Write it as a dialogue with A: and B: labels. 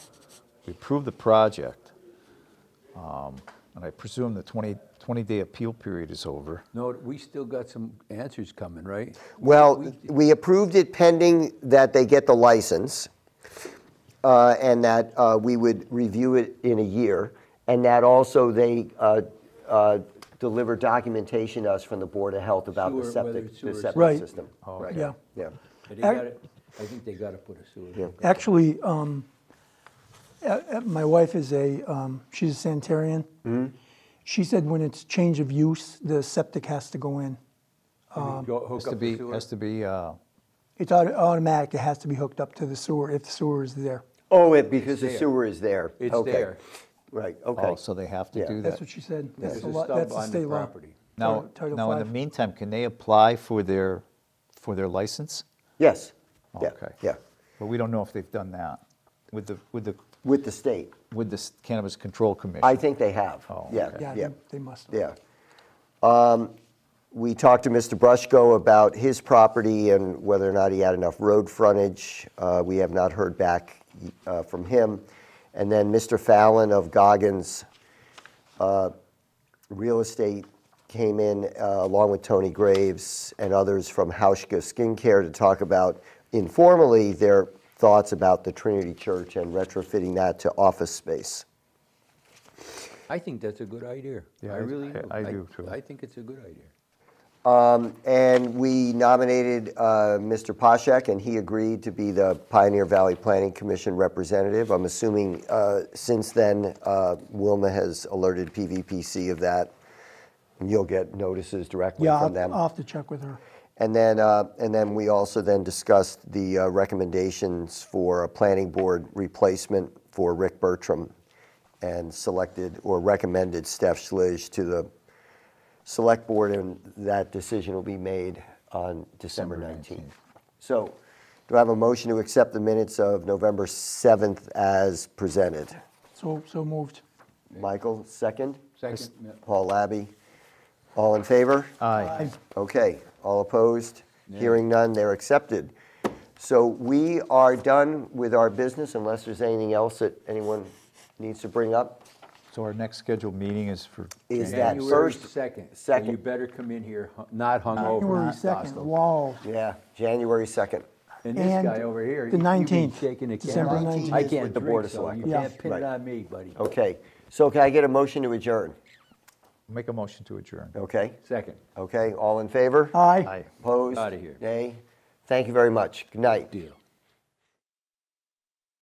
A: we approved the project, um, and I presume the 20, 20-day appeal period is over.
B: No, we still got some answers coming, right?
C: Well, we approved it pending that they get the license, uh, and that uh, we would review it in a year, and that also they uh, uh, deliver documentation to us from the Board of Health about the
B: Sewer, whether
C: septic,
B: it's sewer Oh.
C: the
B: or
C: septic
D: Right.
C: system. Right.
D: Yeah.
C: Yeah.
B: But
D: Er-
B: they gotta- I think they gotta put a sewer.
D: Actually, um, a- a- my wife is a, um, she's a sanitarian.
C: Mm-hmm.
D: She said when it's change of use, the septic has to go in. Um,
B: Go Hook
A: Has to
B: up the
A: be,
B: sewer.
A: has to be, uh,
D: It's auto- automatic, it has to be hooked up to the sewer if the sewer is there.
C: Oh, it, because the
B: there.
C: sewer is there.
B: It's
C: Okay.
B: there.
C: Right,
A: oh,
C: okay.
A: so they have to
C: Yeah.
A: do
D: That's
A: that.
D: what she said.
B: There's
D: That's
B: a
D: the law,
B: stub
D: that's the
B: on the
D: state law.
B: property.
A: Now,
D: Title
A: now in the
D: five.
A: meantime, can they apply for their, for their license?
C: Yes. Yeah,
A: Okay.
C: Yeah,
A: But we don't know if they've done that with the, with the,
C: with the state.
A: with the Cannabis Control Commission.
C: I think they have.
A: Oh,
C: Yeah,
A: okay.
D: Yeah,
C: yeah.
D: they- they must.
C: Yeah. Um, We talked to Mr. Brushko about his property and whether or not he had enough road frontage. Uh, We have not heard back uh, from him. And then Mr. Fallon of Goggins uh, Real Estate came in uh, along with Tony Graves and others from Hauschka Skincare to talk about informally their thoughts about the Trinity Church and retrofitting that to office space.
B: I think that's a good idea.
A: Yeah,
B: I
A: I-
B: really
A: I-
B: do.
A: I do, too.
B: I think it's a good idea.
C: And we nominated uh, Mr. Poshak, and he agreed to be the Pioneer Valley Planning Commission representative. I'm assuming uh, since then, uh, Wilma has alerted PVPC of that, and you'll get notices directly
D: Yeah,
C: from them.
D: I'll I'll have to check with her.
C: And then, uh, and then we also then discussed the uh, recommendations for a planning board replacement for Rick Bertram and selected or recommended Steph Schlich to the select board and that decision will be made on December 19th. So do I have a motion to accept the minutes of November 7th as presented?
D: So, so moved.
C: Michael, second?
B: Second, yeah.
C: Paul Labby, all in favor?
A: Aye.
C: Okay, all opposed? Hearing none, they're accepted. So we are done with our business unless there's anything else that anyone needs to bring up.
A: So our next scheduled meeting is for.
C: Is that
A: January.
B: January
C: first-
B: 2nd. So You
C: second.
B: better come in here hu- not hungover.
D: January
B: not
D: 2nd,
B: hostile.
D: wow.
C: Yeah, January 2nd.
B: And this guy
D: And
B: over here. you-
D: the
B: you be
D: 19th,
B: Shaking a
D: December
B: camera.
D: 19th.
B: I
C: With
B: can't
C: the Board
B: drink,
C: of
B: so you
C: Selectmen.
B: can't pin it
C: Right.
B: on me, buddy.
C: Okay, so can I get a motion to adjourn?
A: Make a motion to adjourn.
C: Okay,
B: Second.
C: okay, all in favor?
D: Aye.
A: Aye.
C: Opposed?
B: Outta here.
C: Nay? Thank you very much. Good night.
B: Deal.